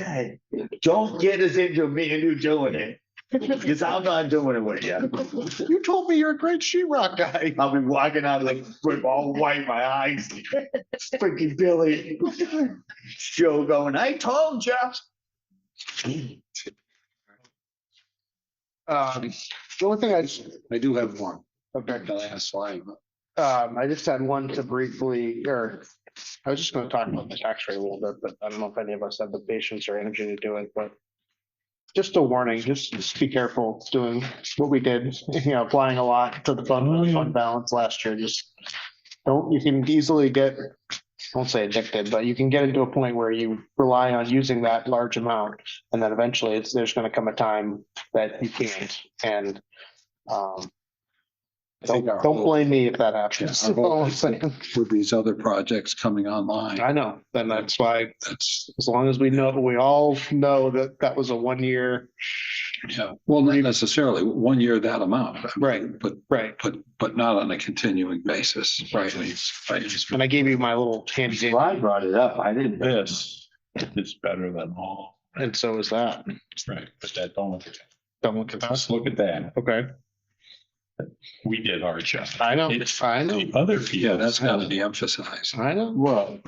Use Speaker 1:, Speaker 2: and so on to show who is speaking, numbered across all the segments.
Speaker 1: Okay, don't get us into me and you doing it, because I'm not doing it with you.
Speaker 2: You told me you're a great sheetrock guy.
Speaker 1: I'll be walking out like with all white, my eyes, freaking Billy. Joe going, I told you.
Speaker 2: Um, the only thing I just. I do have one. Okay.
Speaker 3: The last slide.
Speaker 2: Um, I just had one to briefly, or I was just gonna talk about the tax rate a little bit, but I don't know if any of us have the patience or energy to do it, but. Just a warning, just just be careful doing what we did, you know, applying a lot to the fund, fund balance last year, just. Don't, you can easily get, I won't say addicted, but you can get into a point where you rely on using that large amount. And then eventually it's, there's gonna come a time that you can't and, um.
Speaker 3: I
Speaker 2: Don't,
Speaker 3: think our
Speaker 2: don't
Speaker 3: whole-
Speaker 2: blame me if that happens.
Speaker 3: Yeah, our whole-
Speaker 2: All I'm saying.
Speaker 3: With these other projects coming online,
Speaker 2: I know, then that's why,
Speaker 3: that's,
Speaker 2: as long as we know, we all know that that was a one year.
Speaker 3: yeah, well, not necessarily, one year that amount.
Speaker 2: Right.
Speaker 3: But,
Speaker 2: Right.
Speaker 3: but, but not on a continuing basis, right? Right.
Speaker 2: And I gave you my little handy,
Speaker 1: I brought it up, I didn't.
Speaker 4: This is better than all.
Speaker 2: and so is that.
Speaker 4: Right. But that don't look at
Speaker 2: Don't look at
Speaker 4: that.
Speaker 2: us.
Speaker 4: Just look at that.
Speaker 2: Okay,
Speaker 4: We did our job.
Speaker 2: I know,
Speaker 4: It's-
Speaker 2: I know,
Speaker 4: The other people.
Speaker 3: Yeah, that's gotta be emphasized.
Speaker 2: I know.
Speaker 1: Well,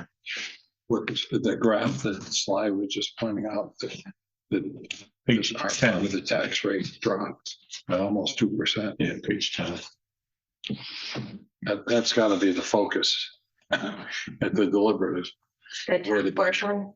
Speaker 3: What the graph that Sly was just pointing out, that, that
Speaker 4: Page
Speaker 3: our
Speaker 4: ten.
Speaker 3: with the tax rate dropped by almost two percent.
Speaker 4: Yeah, page ten.
Speaker 3: That, that's gotta be the focus at the deliberative. Where the-
Speaker 5: Portion.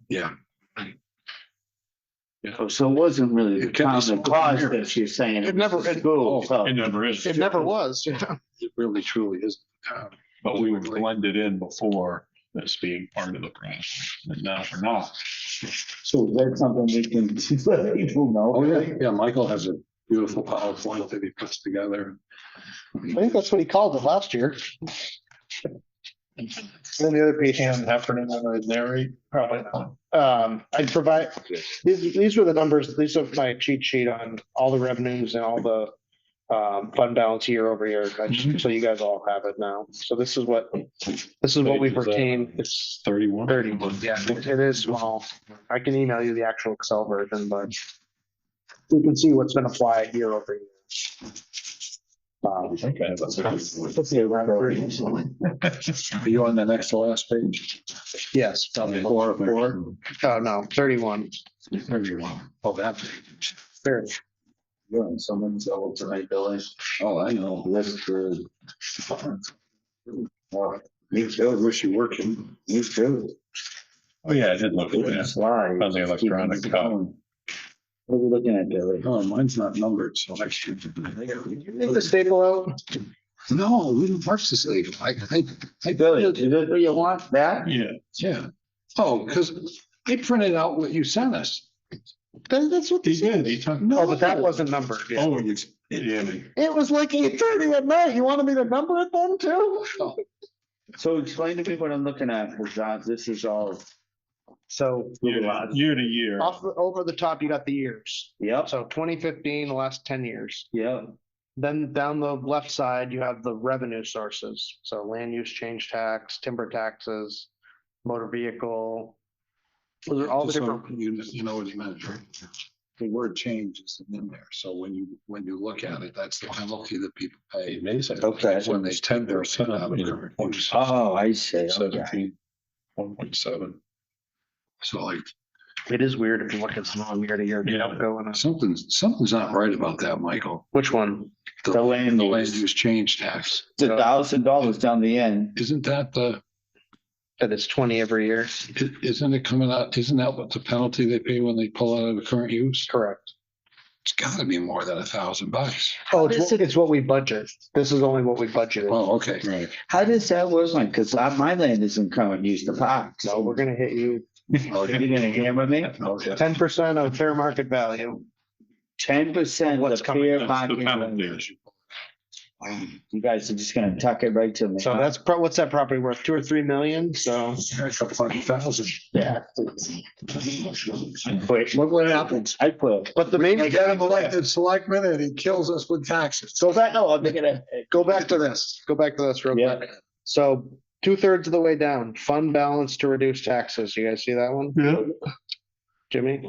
Speaker 1: so it wasn't really the
Speaker 3: It can be
Speaker 1: common
Speaker 3: small
Speaker 1: cause
Speaker 3: here.
Speaker 1: that she's saying.
Speaker 2: It never- it-
Speaker 1: School,
Speaker 3: Oh,
Speaker 1: so.
Speaker 4: It never is,
Speaker 2: It never was, you know.
Speaker 3: It really truly is. uh,
Speaker 4: but we were blended in before this being part of the process. And now we're not.
Speaker 1: So that's something we can let people
Speaker 3: Oh,
Speaker 1: know.
Speaker 3: yeah, yeah, Michael has a beautiful PowerPoint that he puts together.
Speaker 2: I think that's what he called it last year. Then the other piece.
Speaker 4: Heffernan and Larry, probably not.
Speaker 2: Um, I provide, these, these were the numbers, these are my cheat sheet on all the revenues and all the. Um, fund balance year over year, I
Speaker 4: Mm-hmm.
Speaker 2: just- so you guys all have it now, so this is what, this is what we've
Speaker 4: uh,
Speaker 2: retained, it's
Speaker 4: Thirty-one.
Speaker 2: thirty-one, yeah, it it is small. I can email you the actual Excel version, but. You can see what's been applied year over year. Um,
Speaker 4: Okay. that's-
Speaker 2: let's see, around 30.
Speaker 3: Are you on the next to last page?
Speaker 2: Yes, probably.
Speaker 3: Four of them.
Speaker 2: oh no, thirty-one,
Speaker 3: Oh, that. page.
Speaker 2: Thirty.
Speaker 3: You're on someone's level tonight, Billy. Oh, I know. That's good. Me too. Wish you working.
Speaker 1: You too.
Speaker 4: Oh, yeah, I did look at that.
Speaker 1: Slide.
Speaker 4: Sounds like electronic copy.
Speaker 3: Oh,
Speaker 1: What are we looking at, Billy?
Speaker 3: mine's not numbered, so I should.
Speaker 2: Take the staple out,
Speaker 3: No, we didn't park this late. I, I,
Speaker 1: Hey, Billy, is it, do you want that?
Speaker 4: Yeah.
Speaker 3: yeah. Oh, because they printed out what you sent us.
Speaker 2: That- that's what.
Speaker 4: He did, he took.
Speaker 2: Oh, but that wasn't numbered, yeah.
Speaker 4: Oh, you. Yeah.
Speaker 2: It was like eight thirty at night. You wanted me to number it then too?
Speaker 3: Oh.
Speaker 1: So explain to me what I'm looking at, because uh, this is all,
Speaker 2: So
Speaker 4: Year to- year to year.
Speaker 2: off the, over the top, you got the years.
Speaker 1: yep,
Speaker 2: So twenty fifteen, the last ten years.
Speaker 1: yep.
Speaker 2: Then down the left side, you have the revenue sources. So land use change tax, timber taxes, motor vehicle. Those are all the
Speaker 3: Just so
Speaker 2: different.
Speaker 3: You, you know what he meant, right? The word change isn't in there, so when you, when you look at it, that's the penalty that people pay.
Speaker 4: Amazing.
Speaker 1: Okay.
Speaker 3: When they tender.
Speaker 4: Set up in
Speaker 3: their coverage.
Speaker 1: Oh, I see. okay.
Speaker 3: Seventeen, one
Speaker 4: Ah.
Speaker 3: point seven. So like,
Speaker 2: It is weird if you look at some of them year to year. you don't go in a-
Speaker 3: something's, something's not right about that, Michael.
Speaker 2: Which one?
Speaker 1: The land
Speaker 3: The land
Speaker 1: use,
Speaker 3: use change tax,
Speaker 1: it's a thousand dollars down the end.
Speaker 3: isn't that the,
Speaker 2: That it's twenty every year.
Speaker 3: i- isn't it coming out, isn't that what the penalty they pay when they pull out of the current use?
Speaker 2: Correct.
Speaker 3: It's gotta be more than a thousand bucks.
Speaker 2: Oh, it's, what- it's what we budget. This is only what we budgeted.
Speaker 3: Oh, okay.
Speaker 4: Right.
Speaker 1: How does that work? Like, cause I- my land isn't coming, use the park.
Speaker 2: No, we're gonna hit you
Speaker 1: You're gonna hammer me?
Speaker 3: Okay.
Speaker 2: ten percent of fair market value.
Speaker 1: Ten percent of
Speaker 2: What's coming-
Speaker 1: fair
Speaker 4: That's the
Speaker 1: market.
Speaker 4: penalty.
Speaker 1: value. You guys are just gonna tuck it right to me.
Speaker 2: So that's, pro- what's that property worth? Two or three million? So
Speaker 3: That's a fucking thousand.
Speaker 1: Yeah. Quit. Look what happens. I quit.
Speaker 2: But the main,
Speaker 3: got him elected selectman and he kills us with taxes.
Speaker 1: So that, no, I'm gonna.
Speaker 2: go back to this, go back to this real
Speaker 1: Yeah.
Speaker 2: quick. So two thirds of the way down, fund balance to reduce taxes. You guys see that one?
Speaker 4: Yeah.
Speaker 2: Jimmy?